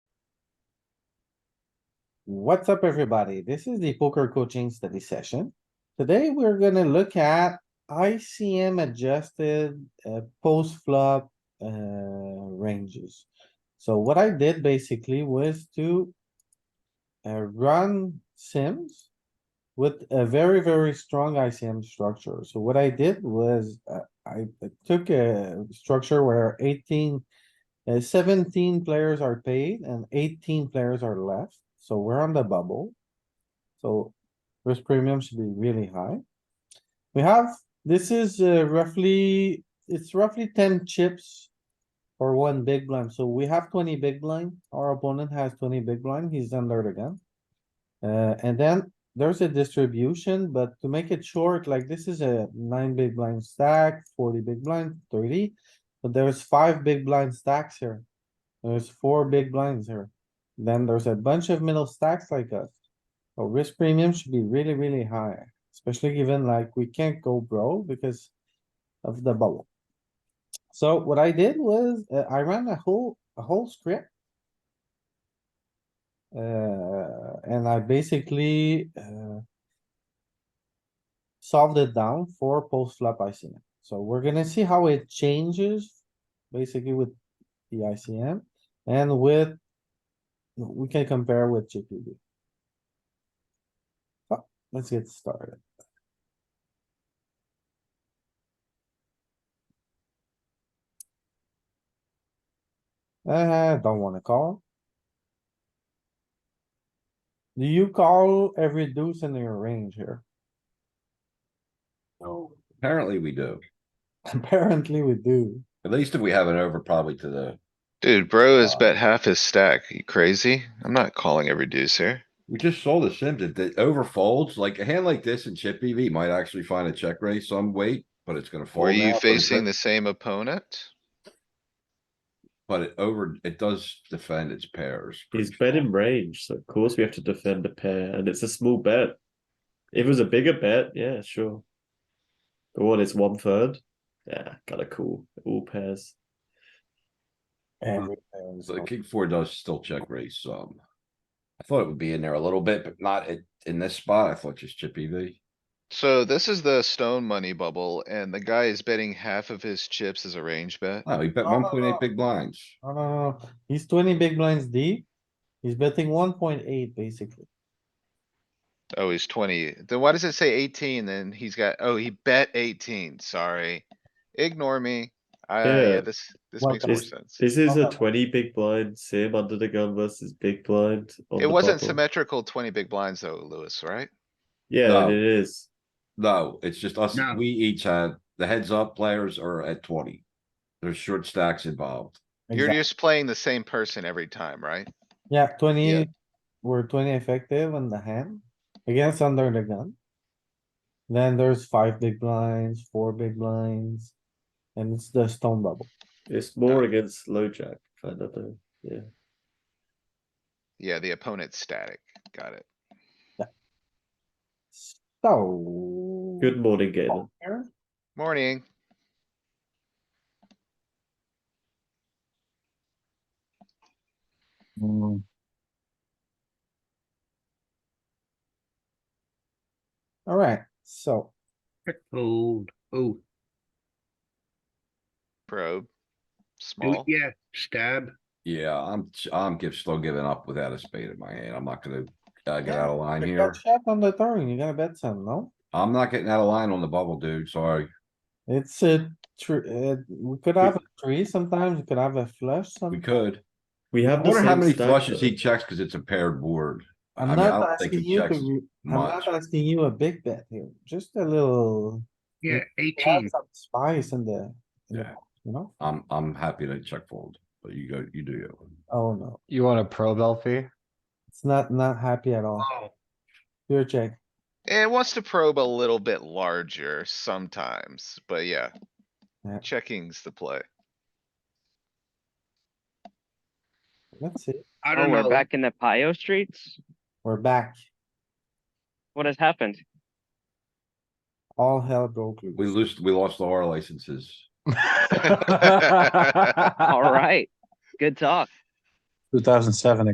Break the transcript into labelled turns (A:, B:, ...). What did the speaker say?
A: What's up, everybody? This is the poker coaching study session. Today, we're gonna look at ICM adjusted uh, post flop uh, ranges. So what I did basically was to uh, run sims with a very, very strong ICM structure. So what I did was uh, I took a structure where eighteen uh, seventeen players are paid and eighteen players are left, so we're on the bubble. So risk premium should be really high. We have, this is uh, roughly, it's roughly ten chips. for one big blind, so we have twenty big blind, our opponent has twenty big blind, he's under the gun. Uh, and then there's a distribution, but to make it short, like this is a nine big blind stack, forty big blind, thirty. But there's five big blind stacks here. There's four big blinds here. Then there's a bunch of middle stacks like us. So risk premium should be really, really high, especially given like we can't go broke because of the bubble. So what I did was uh, I ran a whole, a whole script. Uh, and I basically, uh. Solved it down for post flop ICM. So we're gonna see how it changes basically with the ICM and with. We can compare with GPD. So, Oh, let's get started. Uh, don't wanna call. Do you call every deuce in your range here?
B: Oh, apparently we do.
A: Apparently we do.
B: At least if we have it over probably to the,
C: Dude, bro has
B: Uh,
C: bet half his stack. You crazy? I'm not calling every deuce here.
B: we just saw the Sims, it, it overfolds, like a hand like this in chip EV might actually find a check raise some weight, but it's gonna fold.
C: Were you
B: now, but it's
C: facing
B: gonna-
C: the same opponent?
B: But it over, it does defend its pairs. pretty
D: He's bet
B: strong.
D: in range, so of course we have to defend a pair, and it's a small bet. If it was a bigger bet, yeah, sure. But what, it's one third? Yeah, gotta call all pairs.
A: Every player is
B: So the
A: calling.
B: king four does still check raise some. I thought it would be in there a little bit, but not in, in this spot. I thought just chip E EV.
C: So this is the stone money bubble and the guy is betting half of his chips as a range bet.
B: Oh, he bet
A: No, no,
B: one point
A: no.
B: eight big blinds.
A: No, no, no, no. he's twenty big blinds deep. He's betting one point eight basically.
C: Oh, he's twenty. Then why does it say eighteen? Then he's got, oh, he bet eighteen. Sorry. Ignore me. I,
D: Yeah.
C: yeah, this, this
A: What
C: makes more
D: is-
C: sense.
D: This is
B: Uh-huh.
A: Oh.
D: a twenty big blind sim under the gun versus big blind. on
C: It
D: the
C: wasn't
D: bubble.
C: symmetrical twenty big blinds though, Lewis, right?
D: Yeah,
B: No.
D: it is.
B: No, it's just us, we each had, the heads up players are at twenty. There's short stacks involved.
C: You're
A: Exact-
C: just playing the same person every time, right?
A: Yeah,
C: Yeah.
A: twenty, we're twenty effective on the hand against under the gun. Then there's five big blinds, four big blinds, and it's the stone bubble.
D: It's more against low jack, kind of thing. Yeah.
C: Yeah, the opponent's static. Got it.
A: So.
D: Good morning, Galen.
A: poker.
C: Morning.
A: Mm. Alright, so
E: Fold. Oh,
C: Probe.
E: do-
C: Small.
E: yeah, stab.
B: Yeah, I'm, ch- I'm give, still giving up without a spade in my hand. I'm not gonna, uh, get
A: Yeah,
B: out of line
A: you
B: here.
A: got shot on the turn, you're gonna bet some, no?
B: I'm not getting out of line on the bubble, dude, sorry.
A: It's a true, uh, we could have a three sometimes, we could have a flush
B: We
A: sometimes.
B: could.
D: We
B: I
D: have the
B: wonder how
D: same
B: many
D: stack,
B: flushes
D: though.
B: he checks, cause it's a paired board. I
A: I'm
B: mean,
A: not
B: I don't think
A: asking
B: he
A: you to,
B: checks
A: re- I'm
B: much.
A: not asking you a big bet here, just a little.
E: Yeah,
A: to add
E: eighteen.
A: some Spice in the, in the
B: Yeah.
A: pot, you know,
B: I'm, I'm happy to check fold, but you go, you do you.
A: oh no,
F: You want a probe LP?
A: it's not, not happy at all,
E: Oh,
A: pure check.
C: Eh, It wants to probe a little bit larger sometimes, but yeah.
A: Yeah.
C: Checking's the play.
A: Let's see,
E: I
G: Oh,
E: don't
G: we're
E: know.
G: back in the Pio streets?
A: we're back,
G: What has happened?
A: all hell broke
B: We
A: loose.
B: lost, we lost all our licenses.
F: Alright.
G: Alright, good talk.
F: Two thousand seven